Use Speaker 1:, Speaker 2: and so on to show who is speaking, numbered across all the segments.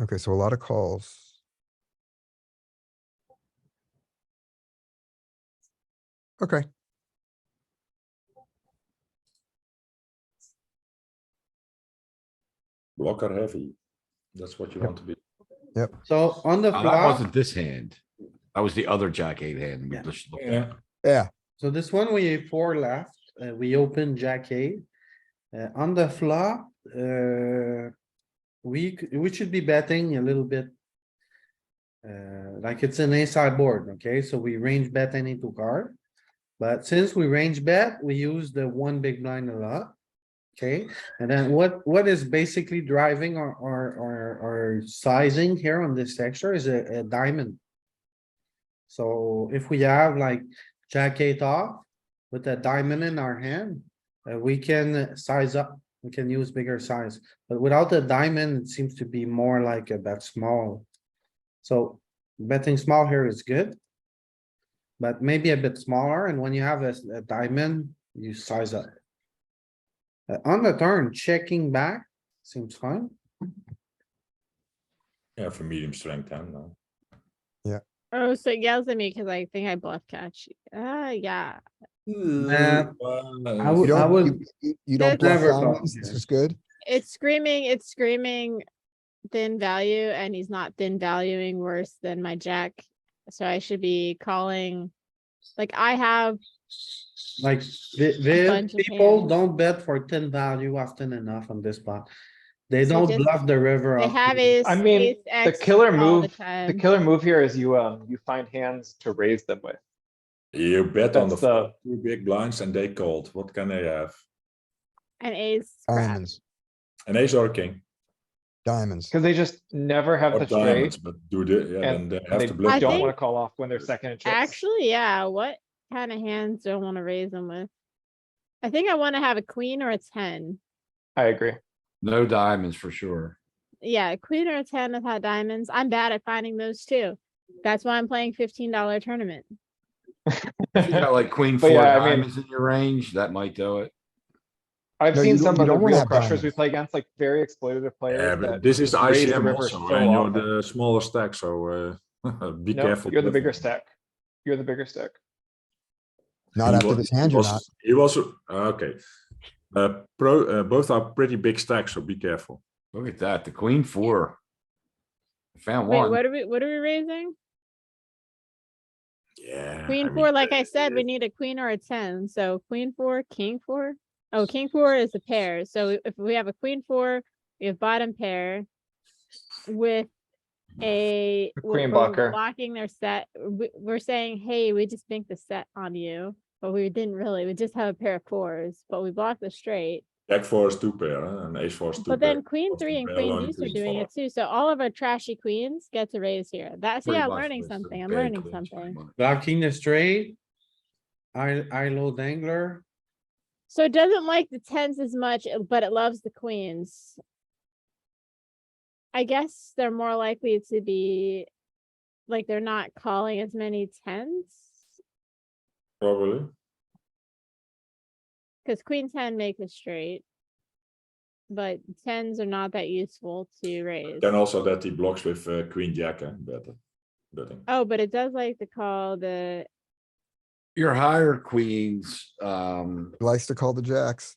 Speaker 1: Okay, so a lot of calls. Okay.
Speaker 2: blocker heavy. That's what you
Speaker 1: Yep.
Speaker 2: want to be.
Speaker 3: So on the
Speaker 4: Now, That
Speaker 3: flop,
Speaker 4: wasn't this hand. That was the other jack eight hand. we
Speaker 3: Yeah.
Speaker 4: just looked at.
Speaker 2: Yeah,
Speaker 1: Yeah,
Speaker 3: so this one we four left, uh, we open jack eight. Uh, on the flop, uh, we, c- we should be betting a little bit. Uh, like it's an ace high board, okay? So we range bet any two card. But since we range bet, we use the one big blind a lot. Okay, and then what, what is basically driving our, our, our, our sizing here on this sector is a, a diamond. So if we have like jack eight off with a diamond in our hand, uh, we can size up, we can use bigger size. But without the diamond, it seems to be more like a bet small. So betting small here is good. But maybe a bit smaller, and when you have a, s- a diamond, you size up. Uh, on the turn, checking back seems fine.
Speaker 2: yeah, for medium strength hand now.
Speaker 5: Oh, so it yells at me because I think I bluff catch. Ah, yeah.
Speaker 3: Nah, I
Speaker 2: Uh,
Speaker 1: you
Speaker 3: would, I
Speaker 1: don't,
Speaker 3: would,
Speaker 1: you- you- you don't
Speaker 5: That's
Speaker 1: bluff
Speaker 3: never gone
Speaker 1: diamonds, this
Speaker 3: here.
Speaker 1: is good.
Speaker 5: It's screaming, it's screaming thin value and he's not thin valuing worse than my jack. So I should be calling. Like I have,
Speaker 3: like, the, the
Speaker 5: bunch of
Speaker 3: people
Speaker 5: hands.
Speaker 3: don't bet for ten value often enough on this spot. They
Speaker 5: So
Speaker 3: don't
Speaker 5: just-
Speaker 3: bluff the river.
Speaker 5: I
Speaker 3: off
Speaker 5: have
Speaker 3: the-
Speaker 5: ace.
Speaker 6: I mean,
Speaker 5: ace
Speaker 6: the
Speaker 5: X
Speaker 6: killer
Speaker 5: all the
Speaker 6: move- The
Speaker 5: time.
Speaker 6: killer move here is you, um, you find hands to raise them with.
Speaker 2: You bet on the
Speaker 6: That's uh, the,
Speaker 2: flop, two big blinds and they called. What can they have?
Speaker 5: And ace. crap.
Speaker 1: Diamonds,
Speaker 2: An ace or a king
Speaker 1: diamonds.
Speaker 6: cause they just never have
Speaker 2: or
Speaker 6: the
Speaker 2: diamonds,
Speaker 6: straight.
Speaker 2: but do the, yeah, then
Speaker 6: And
Speaker 2: they
Speaker 6: and
Speaker 2: have
Speaker 6: they
Speaker 2: to bluff.
Speaker 5: I
Speaker 6: don't
Speaker 5: think-
Speaker 6: wanna call off when they're second in chips.
Speaker 5: Actually, yeah, what kind of hands do I want to raise them with? I think I want to have a queen or a ten.
Speaker 6: I agree.
Speaker 4: No diamonds for sure.
Speaker 5: Yeah, a queen or a ten without diamonds. I'm bad at finding those too. That's why I'm playing fifteen dollar tournament.
Speaker 4: If you got like queen
Speaker 6: But
Speaker 4: four
Speaker 6: yeah, I mean-
Speaker 4: diamonds in your range, that might do it.
Speaker 6: I've
Speaker 1: No, you
Speaker 6: seen
Speaker 1: don't-
Speaker 6: some
Speaker 1: you
Speaker 6: of the
Speaker 1: don't wanna
Speaker 6: real
Speaker 1: have
Speaker 6: crushers we
Speaker 1: diamonds.
Speaker 6: play against, like very exploitative
Speaker 2: Yeah,
Speaker 6: players
Speaker 2: but
Speaker 6: that.
Speaker 2: this is
Speaker 6: raise the
Speaker 2: ICM
Speaker 6: river
Speaker 2: also,
Speaker 6: so
Speaker 2: and you're
Speaker 6: often.
Speaker 2: the smaller stack, so uh, be
Speaker 6: No,
Speaker 2: careful.
Speaker 6: You're the
Speaker 2: with-
Speaker 6: bigger stack. You're the bigger stack.
Speaker 1: Not
Speaker 2: He
Speaker 1: after
Speaker 2: was-
Speaker 1: this
Speaker 2: he
Speaker 1: hand, you're
Speaker 2: was-
Speaker 1: not.
Speaker 2: He was, uh, okay. Uh, pro, uh, both are pretty big stacks, so be careful.
Speaker 4: Look at that, the queen four. I Found
Speaker 5: Wait,
Speaker 4: one.
Speaker 5: what are we, what are we raising?
Speaker 2: Yeah. I
Speaker 5: Queen
Speaker 2: mean,
Speaker 5: four, like I said,
Speaker 2: uh,
Speaker 5: we need a queen or a ten, so queen four, king four. Oh, king four is a pair, so if we have a queen four, we have bottom pair. With a.
Speaker 6: A
Speaker 5: we're-
Speaker 6: queen
Speaker 5: we're
Speaker 6: blocker.
Speaker 5: Blocking their set, we, we're saying, hey, we just think the set on you, but we didn't really, we just have a pair of fours, but we blocked the straight.
Speaker 2: Jack four is two pair, huh, and ace four is two pair.
Speaker 5: But then queen
Speaker 2: Lots of
Speaker 5: three and
Speaker 2: bad
Speaker 5: queen
Speaker 2: line
Speaker 5: deuce are
Speaker 2: queens
Speaker 5: doing
Speaker 2: follow.
Speaker 5: it too, so all of our trashy queens get to raise here, that's,
Speaker 4: Pretty
Speaker 5: yeah, I'm
Speaker 4: much
Speaker 5: learning
Speaker 4: was the
Speaker 5: something, I'm
Speaker 4: bad
Speaker 5: learning
Speaker 4: queens, pretty
Speaker 5: something.
Speaker 4: much.
Speaker 3: Blocking the straight. I, I low dangler.
Speaker 5: So it doesn't like the tens as much, uh, but it loves the queens. I guess they're more likely to be, like, they're not calling as many tens,
Speaker 2: Probably.
Speaker 5: cause queen ten make the straight. But tens are not that useful to raise.
Speaker 2: Then also that he blocks with uh, queen jack, eh, better, betting.
Speaker 5: Oh, but it does like to call the,
Speaker 4: Your higher queens, um,
Speaker 1: Likes to call the jacks.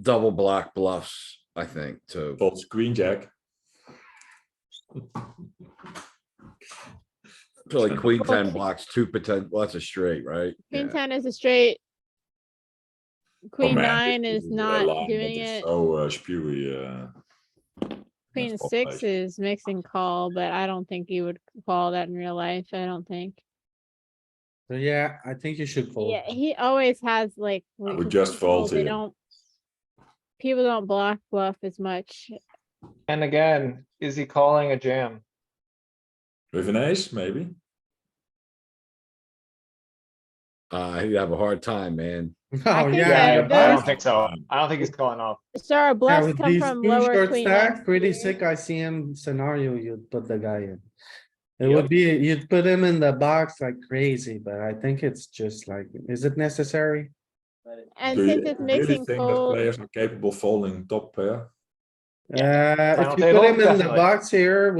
Speaker 4: double block bluffs, I think, too.
Speaker 2: Folds queen jack.
Speaker 4: So like queen ten
Speaker 5: Okay.
Speaker 4: blocks, two potential, well, that's a straight, right?
Speaker 5: queen
Speaker 4: Yeah.
Speaker 5: ten is a straight. Queen
Speaker 2: oh man,
Speaker 5: nine
Speaker 2: this
Speaker 5: is
Speaker 2: a line
Speaker 5: not
Speaker 2: that
Speaker 5: doing
Speaker 2: is
Speaker 5: it,
Speaker 2: So uh, spewy, uh,
Speaker 5: queen
Speaker 2: four
Speaker 5: six
Speaker 2: plays.
Speaker 5: is mixing call, but I don't think you would call that in real life, I don't think.
Speaker 3: So yeah, I think you should fold.
Speaker 5: Yeah, he always has like.
Speaker 2: I
Speaker 5: when-
Speaker 2: would
Speaker 5: 'cause
Speaker 2: just
Speaker 5: people,
Speaker 2: fold
Speaker 5: They
Speaker 2: here.
Speaker 5: don't. People don't block bluff as much.
Speaker 6: And again, is he calling a jam?
Speaker 2: with an ace, maybe.
Speaker 4: Uh, you have a hard time, man.
Speaker 3: Oh, yeah.
Speaker 5: think that
Speaker 3: the
Speaker 6: I
Speaker 5: Yeah,
Speaker 3: bluff-
Speaker 6: don't think so. I don't think he's calling off.
Speaker 5: So our
Speaker 3: Yeah,
Speaker 5: bluffs
Speaker 3: with
Speaker 5: come
Speaker 3: these
Speaker 5: from
Speaker 3: two
Speaker 5: lower
Speaker 3: short
Speaker 5: queen.
Speaker 3: stacks,
Speaker 5: X
Speaker 3: Pretty
Speaker 5: here.
Speaker 3: sick ICM scenario you'd put the guy in. It
Speaker 2: Yep.
Speaker 3: would be, you'd put him in the box like crazy, but I think it's just like, is it necessary?
Speaker 5: And
Speaker 2: Do you
Speaker 5: since it's
Speaker 2: really
Speaker 5: mixing
Speaker 2: think that
Speaker 5: fold,
Speaker 2: Players are capable of folding top pair.
Speaker 3: Uh, if
Speaker 6: Round
Speaker 3: you put
Speaker 6: table,
Speaker 3: him in the
Speaker 6: definitely.
Speaker 3: box here